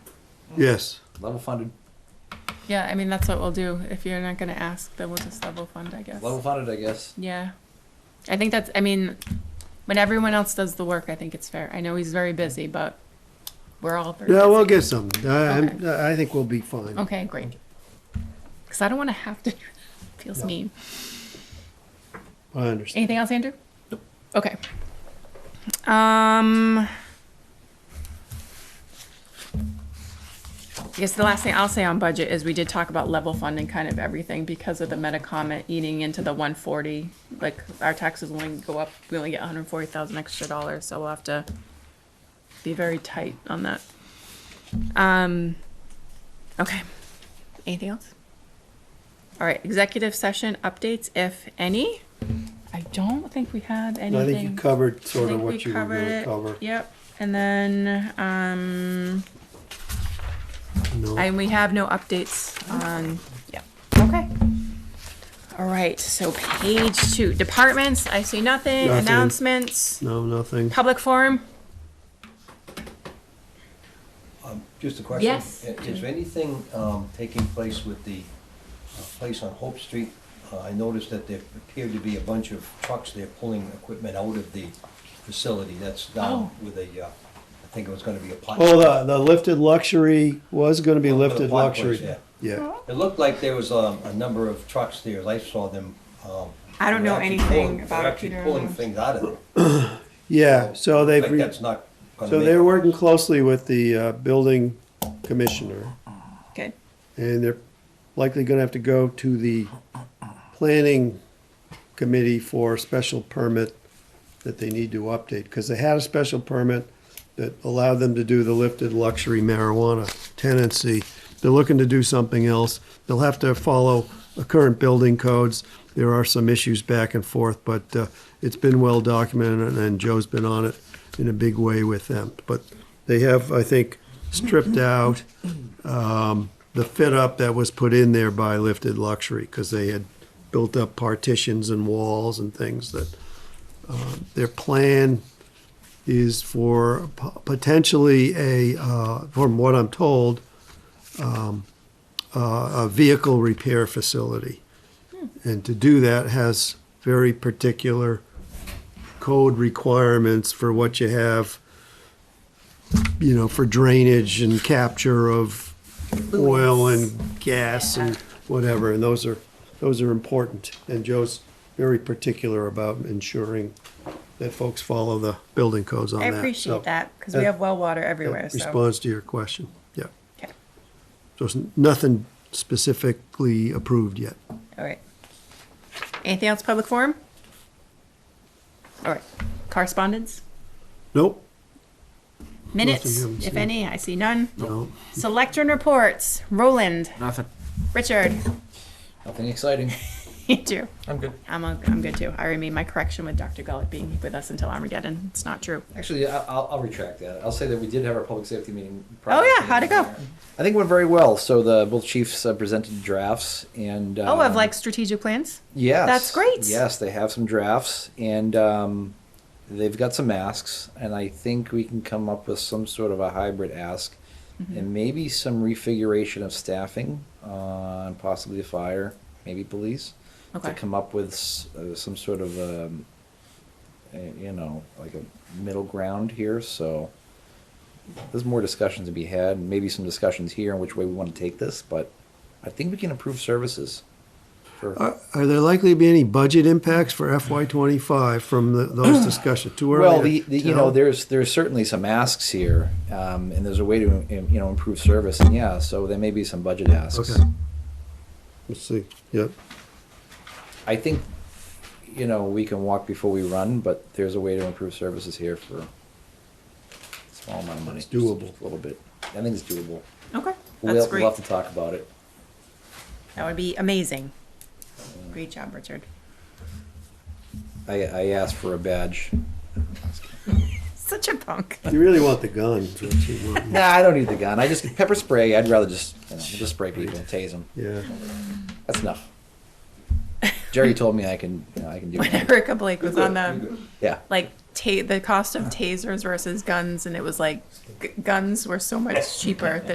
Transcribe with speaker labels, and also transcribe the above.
Speaker 1: Yes.
Speaker 2: Level funded.
Speaker 3: Yeah, I mean, that's what we'll do. If you're not gonna ask, then we'll just level fund, I guess.
Speaker 2: Level funded, I guess.
Speaker 3: Yeah. I think that's, I mean, when everyone else does the work, I think it's fair. I know he's very busy, but we're all very busy.
Speaker 1: Yeah, we'll get some. I, I'm- I think we'll be fine.
Speaker 3: Okay, great. Cause I don't wanna have to, do that. feels
Speaker 1: No.
Speaker 3: mean.
Speaker 1: I understand.
Speaker 3: Anything else, Andrew? Nope. Okay. Um. I guess the last thing I'll say on budget is we did talk about level funding kind of everything because of the Metacomet eating into the one forty. Like our taxes only go up, we only get one hundred forty thousand extra dollars, so we'll have to be very tight on that. Um. Okay. Anything else? All right, executive session updates, if any. I don't think we had
Speaker 1: I think you
Speaker 3: anything.
Speaker 1: covered
Speaker 3: I
Speaker 1: sort of
Speaker 3: think we
Speaker 1: what you were
Speaker 3: covered
Speaker 1: gonna
Speaker 3: it.
Speaker 1: cover.
Speaker 3: Yep, and then, um,
Speaker 1: No,
Speaker 3: and we have no updates on, yep, okay. All right, so page two, departments, I see nothing,
Speaker 1: Nothing.
Speaker 3: announcements,
Speaker 1: no, nothing.
Speaker 3: public forum,
Speaker 4: Um, Just a question.
Speaker 3: Yes.
Speaker 4: I- Is there anything um, taking place with the uh, place on Hope Street? Uh, I noticed that there appeared to be a bunch of trucks there pulling equipment out of the facility that's down
Speaker 3: Oh.
Speaker 4: with a, uh, I think it was gonna be a pot.
Speaker 1: Oh, the, the lifted luxury was gonna be lifted
Speaker 4: Park place,
Speaker 1: luxury.
Speaker 4: yeah.
Speaker 1: Yeah.
Speaker 4: It looked like there was um, a number of trucks there. I saw them. um,
Speaker 3: I don't
Speaker 4: they were
Speaker 3: know
Speaker 4: actually
Speaker 3: anything
Speaker 4: pulling- they were
Speaker 3: about it, Peter,
Speaker 4: Actually pulling
Speaker 3: no.
Speaker 4: things out of there.
Speaker 1: Yeah, so they've,
Speaker 4: Like
Speaker 1: re-
Speaker 4: that's not gonna
Speaker 1: so
Speaker 4: make
Speaker 1: they're
Speaker 4: it.
Speaker 1: working closely with the, uh, building commissioner.
Speaker 3: good.
Speaker 1: And they're likely gonna have to go to the planning committee for a special permit that they need to update, because they had a special permit that allowed them to do the lifted luxury marijuana tenancy. They're looking to do something else. They'll have to follow the current building codes. There are some issues back and forth, but uh, it's been well documented, and Joe's been on it in a big way with them. But they have, I think, stripped out um, the fit up that was put in there by Lifted Luxury because they had built up partitions and walls and things that um, their plan is for po- potentially a, uh, from what I'm told, um, uh, a vehicle repair facility.
Speaker 3: Hmm.
Speaker 1: And to do that has very particular code requirements for what you have you know, for drainage and capture of oil and gas and whatever, and those are, those are important. And Joe's very particular about ensuring that folks follow the building codes on
Speaker 3: I
Speaker 1: that. so
Speaker 3: appreciate that, cause we
Speaker 1: that-
Speaker 3: have well water
Speaker 1: that
Speaker 3: everywhere, so.
Speaker 1: Responds to your question, yeah.
Speaker 3: Okay.
Speaker 1: So it's nothing specifically approved yet.
Speaker 3: All right. Anything else, public forum? All right, correspondence,
Speaker 1: Nope,
Speaker 3: minutes,
Speaker 1: haven't
Speaker 3: if
Speaker 1: seen.
Speaker 3: any, I see none.
Speaker 1: no,
Speaker 3: Selectron reports, Roland,
Speaker 2: Nothing.
Speaker 3: Richard,
Speaker 2: Nothing exciting.
Speaker 3: Andrew.
Speaker 2: I'm good.
Speaker 3: I'm, o- I'm good too. I remain my correction with Dr. Gullett being with us until Armageddon. It's not true.
Speaker 2: Actually, I- I'll, I'll retract that. I'll say that we did have our public safety meeting.
Speaker 3: Oh, yeah. How'd it go?
Speaker 2: I think it went very well. So the both chiefs uh, presented drafts and.
Speaker 3: Oh, of
Speaker 2: um,
Speaker 3: like strategic plans?
Speaker 2: Yes.
Speaker 3: That's great.
Speaker 2: Yes, they have some drafts and um, they've got some asks. And I think we can come up with some sort of a hybrid ask
Speaker 3: Mm-hmm.
Speaker 2: and maybe some refiguration of staffing uh, and possibly the fire, maybe police,
Speaker 3: Okay.
Speaker 2: to come up with s- uh, some sort of, um, uh, you know, like a middle ground here. So there's more discussions to be had and maybe some discussions here on which way we want to take this. But I think we can improve services. For,
Speaker 1: Are, are there likely to be any budget impacts for FY twenty-five from the- those discussions? Too early to
Speaker 2: Well, the, the, you know,
Speaker 1: tell?
Speaker 2: there's there's certainly some asks here, um, and there's a way to um, you know improve service, and yeah, so there may be some budget asks.
Speaker 1: Okay. Let's see, yep.
Speaker 2: I think, you know, we can walk before we run, but there's a way to improve services here for a small amount of money.
Speaker 1: It's doable.
Speaker 2: Just a little bit. I think it's doable.
Speaker 3: Okay.
Speaker 2: We'll,
Speaker 3: That's
Speaker 2: we'll
Speaker 3: great.
Speaker 2: have to talk about it.
Speaker 3: That would be amazing. Great job, Richard.
Speaker 2: I, I asked for a badge.
Speaker 3: Such a punk.
Speaker 1: You really want the gun, is what you want.
Speaker 2: Nah, I don't need the gun. I just pepper spray. I'd rather just you know, just spray people, tase them.
Speaker 1: Yeah.
Speaker 2: That's enough. Jerry told me I can you know, I can do
Speaker 3: When
Speaker 2: it.
Speaker 3: Erica Blake was on the,
Speaker 2: Yeah.
Speaker 3: like, ta- the cost of tasers versus guns, and it was like, g- guns were so much cheaper than